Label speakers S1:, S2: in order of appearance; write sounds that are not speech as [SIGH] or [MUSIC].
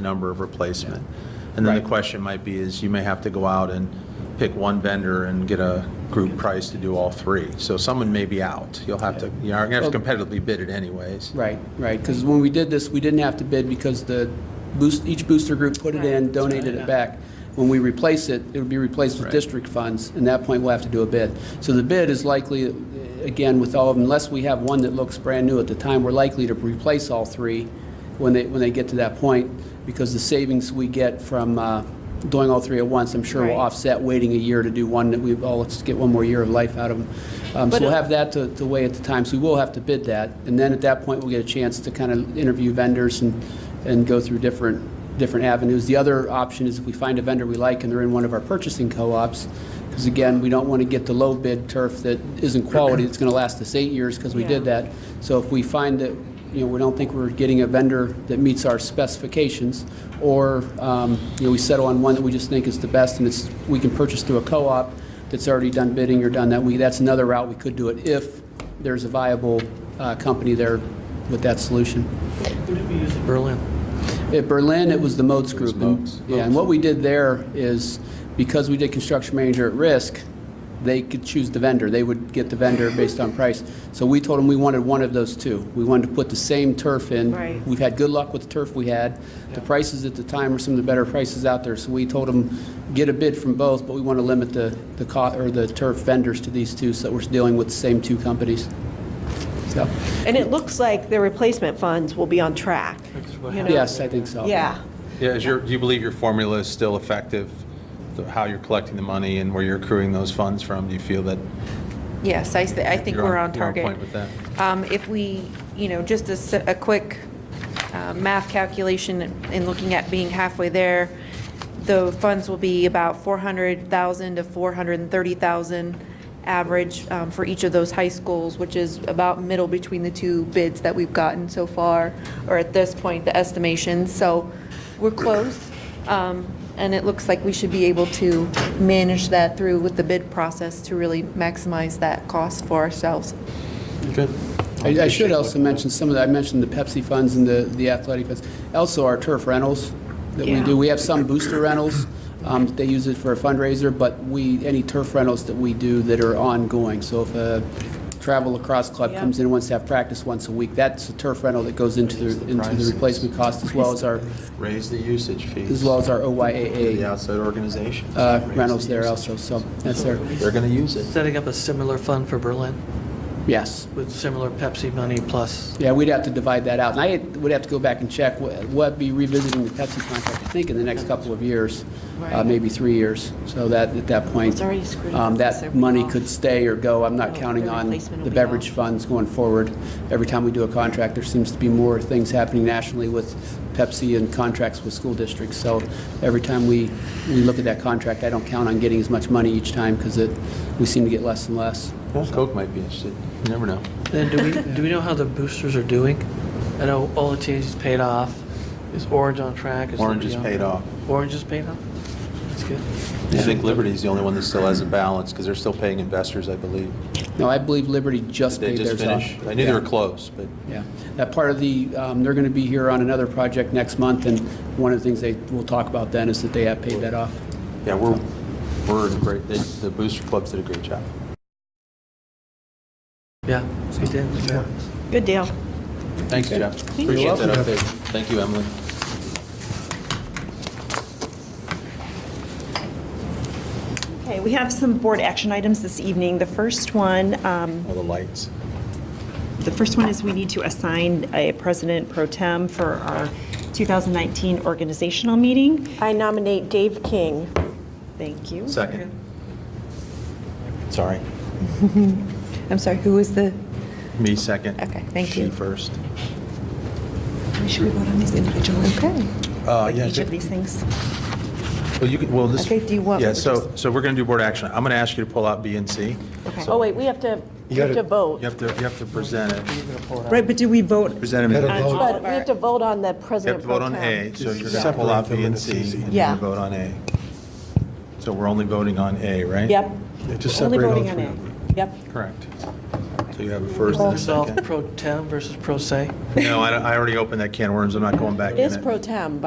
S1: number of replacement. And then the
S2: Right.
S1: question might be is you may have to go out and pick one vendor and get a group price to do all three. So someone may be out. You'll have to, you are going to have to competitively bid it anyways.
S2: Right, right, because when we did this, we didn't have to bid because the boost, each booster group put it in, donated it back. When we replace it, it would be replaced with district funds, and at that point, we'll have to do a bid. So the bid is likely, again, with all of them, unless we have one that looks brand new at the time, we're likely to replace all three when they, when they get to that point, because the savings we get from uh, doing all three at once, I'm sure will
S3: Right.
S2: offset waiting a year to do one that we've, oh, let's get one more year of life out of them. Um, So
S3: But
S2: we'll
S3: it-
S2: have that to, to weigh at the time, so we will have to bid that. And then at that point, we'll get a chance to kind of interview vendors and, and go through different, different avenues. The other option is if we find a vendor we like and they're in one of our purchasing co-ops, because again, we don't want to get the low bid turf that isn't quality, that's going to last us eight years because we did
S3: Yeah.
S2: that. So if we find that, you know, we don't think we're getting a vendor that meets our specifications, or, um, you know, we settle on one that we just think is the best and it's, we can purchase through a co-op that's already done bidding or done that, we, that's another route we could do it if there's a viable uh, company there with that solution. At Berlin, it was the Moats Group. and-
S1: Moats.
S2: Yeah, and what we did there is, because we did construction manager at risk, they could choose the vendor. They would get the vendor based on price. So we told them we wanted one of those two. We wanted to put the same turf in.
S3: Right.
S2: We've had good luck with the turf we had. The prices at the time were some of the better prices out there. So we told them, get a bid from both, but we want to limit the, the cost, or the turf vendors to these two, so that we're dealing with the same two companies. So,
S3: And it looks like the replacement funds will be on track. you know?
S2: yes, I think so.
S3: Yeah,
S1: Yeah, is your, do you believe your formula is still effective? the- How you're collecting the money and where you're accruing those funds from? Do you feel that
S4: Yes, I, th- I think
S1: You're
S4: we're
S1: on-
S4: on
S1: you're on
S4: target.
S1: point with that.
S4: Um, If we, you know, just a, s- a quick uh, math calculation and looking at being halfway there, the funds will be about 400,000 to 430,000 average um, for each of those high schools, which is about middle between the two bids that we've gotten so far, or at this point, the estimation. So we're close, um, and it looks like we should be able to manage that through with the bid process to really maximize that cost for ourselves.
S2: I I should also mention some of the, I mentioned the Pepsi funds and the the athletic funds, also our turf rentals that we
S4: Yeah.
S2: do. We have some booster rentals, um, that they use it for a fundraiser, but we, any turf rentals that we do that are ongoing. So if a travel lacrosse club
S3: Yeah.
S2: comes in, and wants to have practice once a week, that's a turf rental that goes into the, into the
S1: prices.
S2: replacement cost as well as our,
S1: raise the usage fees?
S2: as well as our
S1: The
S2: OYAA
S1: outside organizations.
S2: uh,
S1: Raise the
S2: rentals there
S1: usage.
S2: also, so that's there.
S1: They're going to use it.
S5: Setting up a similar fund for Berlin
S2: Yes.
S5: with similar Pepsi money plus.
S2: Yeah, we'd have to divide that out, and I had- would have to go back and check, Wh- we'll be revisiting the Pepsi contract, I think, in the next couple of years, uh,
S4: Right.
S2: maybe three years, so that, at that point,
S4: It's already screwed
S2: um,
S4: up, so
S2: that
S4: it'll be
S2: money
S4: off.
S2: could stay or go, I'm not
S4: No,
S2: counting
S4: the
S2: on
S4: replacement will
S2: the
S4: be
S2: beverage
S4: off.
S2: funds going forward. Every time we do a contract, there seems to be more things happening nationally with Pepsi and contracts with school districts, so every time we, we look at that contract, I don't count on getting as much money each time, because it, we seem to get less and less.
S1: Well, Coke might be interested. You never know.
S5: Then [LAUGHS] do we, do we know how the boosters are doing? I know Olatea's is paid off. Is Orange on track?
S1: Orange
S5: Liberty
S1: is
S5: on
S1: paid
S5: track?
S1: off.
S5: Orange is paid off? That's good.
S1: I think Liberty's the only one that still has a balance because they're still paying investors, I believe.
S2: No, I believe Liberty just
S1: They
S2: paid
S1: just
S2: theirs off.
S1: finished. I knew they
S2: Yeah.
S1: were close, but
S2: Yeah, that part of the, um, they're going to be here on another project next month, and one of the things they will talk about then is that they have paid that off.
S1: yeah, we're, we're in great, the the booster clubs did a great job.
S5: Yeah, they did.
S3: good deal.
S1: Thanks, Jeff. Appreciate that update. Thank you, Emily.
S3: Okay, we have some board action items this evening. The first one, um,
S1: All the lights.
S3: the first one is we need to assign a president pro tem for our 2019 organizational meeting.
S6: I nominate Dave King.
S3: Thank you.
S1: Second. Sorry.
S4: I'm sorry, who was the?
S1: Me second.
S4: Okay, thank
S1: She
S4: you.
S1: first.
S3: Should we vote on these individually?
S4: Okay.
S1: Uh,
S3: Like
S1: yeah,
S3: each
S1: ju-
S3: of these things?
S1: Well, you could, well, this.
S4: Okay, do you want-
S1: Yeah, so, so we're going to do board action. I'm going to ask you to pull out B and C.
S4: Okay.
S6: Oh, wait, we have to, we have to vote.
S1: You have to, you have to present it.
S3: Right, but do we vote?
S1: Present them.
S3: on all
S6: But
S3: of
S6: we
S3: our-
S6: have to vote on the
S1: You have
S6: president
S1: to
S6: pro
S1: vote on
S6: tem.
S1: A, so you're going to pull out B and C, and you're
S3: Yeah.
S1: going to vote on A. So we're only voting on A, right?
S6: Yep.
S7: Just
S6: Only
S7: separate all
S6: voting on
S7: three
S6: A.
S7: of them.
S6: Yep.
S1: Correct. So you have a first and a
S5: Yourself,
S1: second.
S5: pro tem versus pro se?
S1: No, I I already opened that can of worms, I'm not going back in
S6: It
S1: it.
S6: is pro tem,